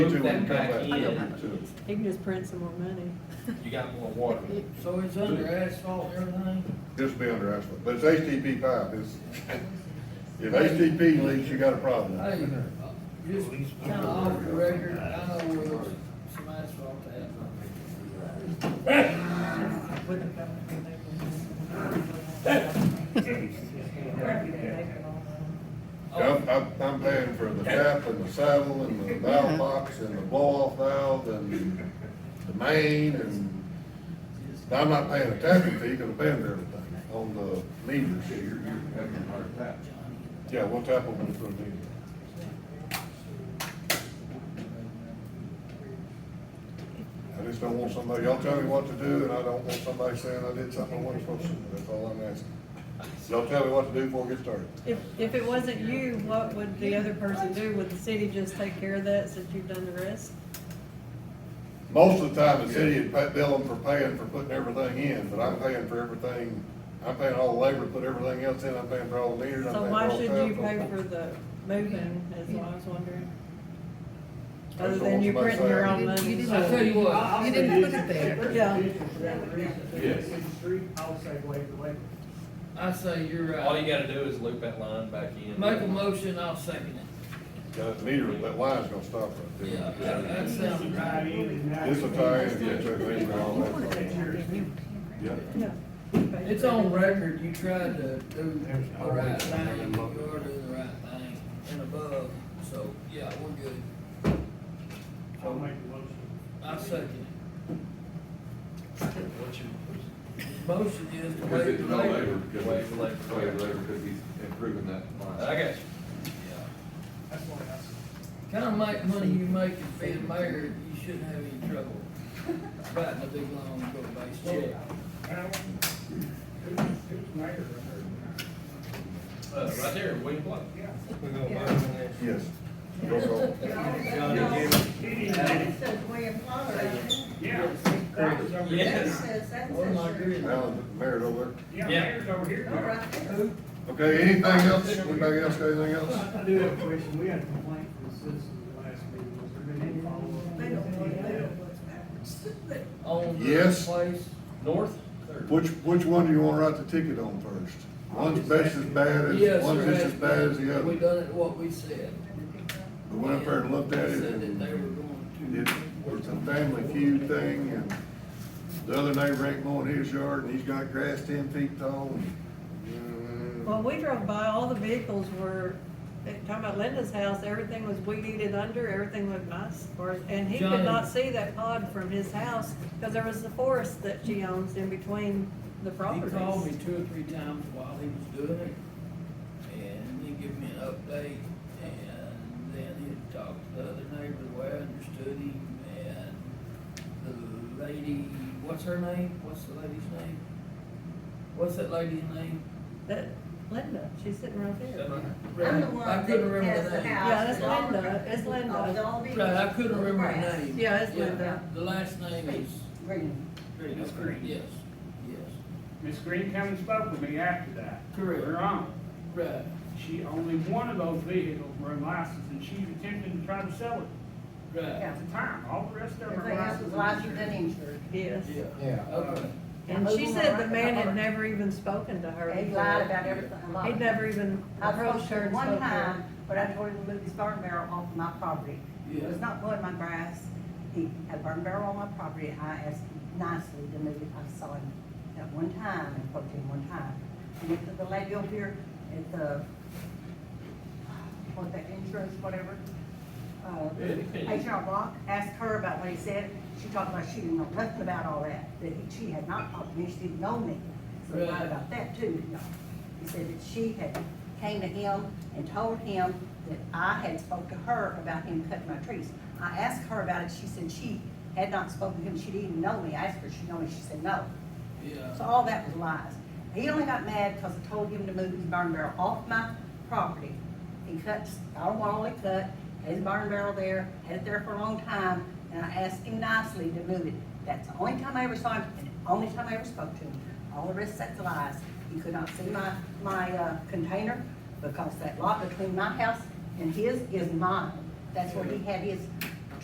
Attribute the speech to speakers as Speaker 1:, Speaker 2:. Speaker 1: Move that back in,
Speaker 2: He can just print some more money.
Speaker 1: you got more water.
Speaker 3: So it's under asphalt, and everything?
Speaker 4: Just be under asphalt, but it's HTP pipe, it's, if HTP leaks, you got a
Speaker 1: Oh,
Speaker 3: Hey,
Speaker 4: problem.
Speaker 3: just kinda off the record, I know where there's some asphalt at.
Speaker 4: I'm, I'm, I'm paying for the tap and the saddle and the valve box and the blow-off valve and the main and, I'm not paying a tapping fee, because I'm paying for everything on the meters. Yeah, we'll tap them when it's needed. I just don't want somebody, y'all tell me what to do, and I don't want somebody saying I did something I wasn't supposed to, do. that's all I'm asking. Y'all tell me what to do before we get started.
Speaker 2: If, if it wasn't you, what would the other person do? Would the city just take care of that since you've done the rest?
Speaker 4: Most of the time, the city would pay, bill them for paying for putting everything in, but I'm paying for everything, I'm paying all the labor, to put everything else in, I'm paying for all the meters, I'm
Speaker 2: So
Speaker 4: paying for
Speaker 2: why
Speaker 4: all the.
Speaker 2: should you
Speaker 4: tap.
Speaker 2: pay for the moving, is what I was wondering?
Speaker 4: I
Speaker 2: Other
Speaker 4: just
Speaker 2: than you
Speaker 4: don't want
Speaker 2: printing your own
Speaker 5: saying- You
Speaker 4: somebody
Speaker 2: money.
Speaker 5: didn't-
Speaker 3: I tell you what.
Speaker 5: You didn't put it there.
Speaker 2: Yeah.
Speaker 6: Yes.
Speaker 3: I say you're
Speaker 1: All you
Speaker 3: right.
Speaker 1: gotta do is loop that line back in.
Speaker 3: Make a motion, I'll second it.
Speaker 4: Yeah, The meter, that line's gonna stop right there.
Speaker 3: Yeah, that, that sounds right.
Speaker 4: This will tie in, yeah, check these and all that. Yeah.
Speaker 2: No.
Speaker 3: It's on record, you tried to do the right thing, you are doing the right thing and above, so, yeah, we're good.
Speaker 7: I'll make the motion.
Speaker 3: I second
Speaker 1: What you-
Speaker 3: it. Motion is to
Speaker 6: Because
Speaker 3: waive
Speaker 6: it's
Speaker 3: the
Speaker 6: no labor,
Speaker 3: labor.
Speaker 6: because
Speaker 1: Waive
Speaker 6: it's,
Speaker 1: the labor.
Speaker 6: waive the labor, because he's improving that line.
Speaker 1: I got you.
Speaker 7: That's why I,
Speaker 3: Kind of like money you make as being mayor, you shouldn't have any trouble writing a big long bill-based check.
Speaker 7: Alan, who's, who's mayor?
Speaker 1: Uh, right there, William Blake.
Speaker 7: Yeah.
Speaker 4: Yes. Roll call.
Speaker 7: Yeah.
Speaker 1: Yes.
Speaker 3: What am I doing?
Speaker 4: Alan, mayor's over
Speaker 7: Yeah,
Speaker 1: Yeah.
Speaker 7: mayor's over here.
Speaker 4: there. Okay, anything else? Anybody else got anything else?
Speaker 7: I do have a question. We had a complaint from the citizens the last meeting. Was there been any follow-up?
Speaker 3: On the
Speaker 4: Yes.
Speaker 3: place,
Speaker 1: North, third.
Speaker 4: Which, which one do you wanna write the ticket on first? One's best as bad
Speaker 3: yes,
Speaker 4: as, one's
Speaker 3: sir,
Speaker 4: just as bad as the
Speaker 3: We
Speaker 4: other.
Speaker 3: done it what we said.
Speaker 4: We went up there and looked at it
Speaker 3: Said that they were
Speaker 4: and
Speaker 3: going
Speaker 4: it was a family feud thing and the other neighbor ain't mowing his yard and he's got grass ten feet tall. and, uh,
Speaker 2: Well, we drove by, all the vehicles were, eh, talking about Linda's house, everything was weed eated under, everything looked nice. or- And he could
Speaker 3: Johnny.
Speaker 2: not see that pod from his house, because there was the forest that she owns in between the
Speaker 3: to. He called me
Speaker 2: properties.
Speaker 3: two or three times while he was doing it, and he gave me an update, and then he talked to the other neighbor, the way I understood him, and the lady, what's her name? What's the lady's name? What's that lady's name?
Speaker 2: That, Linda, she's sitting right there.
Speaker 8: I'm the one
Speaker 3: I couldn't
Speaker 8: that
Speaker 3: remember
Speaker 8: has
Speaker 3: the
Speaker 8: the
Speaker 3: name.
Speaker 8: house.
Speaker 2: Yeah, that's Linda, it's
Speaker 8: Oh,
Speaker 2: Linda.
Speaker 3: Right, I couldn't remember the name.
Speaker 2: Yeah, it's Linda.
Speaker 3: The last name is.
Speaker 8: Green.
Speaker 7: Miss Green.
Speaker 3: Yes, yes,
Speaker 7: Miss Green come and spoke with me after that.
Speaker 3: Correct.
Speaker 7: We're on.
Speaker 3: right.
Speaker 7: She, only one of those vehicles were licensed and she's attempting to try to sell it
Speaker 3: Right,
Speaker 7: at the time. All the rest of them are
Speaker 8: Everything else is licensed and
Speaker 7: licensed.
Speaker 8: insured.
Speaker 2: Yes.
Speaker 3: yeah.
Speaker 1: Yeah.
Speaker 3: Okay.
Speaker 2: And she said the man had never even spoken to her.
Speaker 8: They
Speaker 2: before.
Speaker 8: lied about everything, a lot.
Speaker 2: He'd never even
Speaker 8: I approached
Speaker 2: approached her
Speaker 8: her
Speaker 2: and
Speaker 8: one
Speaker 2: spoke to her.
Speaker 8: time, but I told him to move his burn barrel off my property. It was not blowing my grass, he had burn barrel on my property, I asked him nicely to move it, I saw him at one time, and poked him one time. I went to the lady over here at the, what, that insurance, whatever, uh, HR Block, asked her about what he said, she talked about she didn't know nothing about all that, that he- she had not talked to me, she didn't know me. So he lied about that too, didn't y'all? He said that she had came to him and told him that I had spoke to her about him cutting my trees. I asked her about it, she said she had not spoken to him, she didn't even know me, I asked her, if she know me, she said no.
Speaker 3: Yeah.
Speaker 8: So all that was lies. He only got mad because I told him to move his barn barrel off my property. He cuts, I don't want all he cut, had his barn barrel there, had it there for a long time, and I asked him nicely to move it. That's the only time I ever saw him, and the only time I ever spoke to him. All the rest, that's lies. He could not see my, my, uh, container, because that lot between my house and his is mine. That's where he had his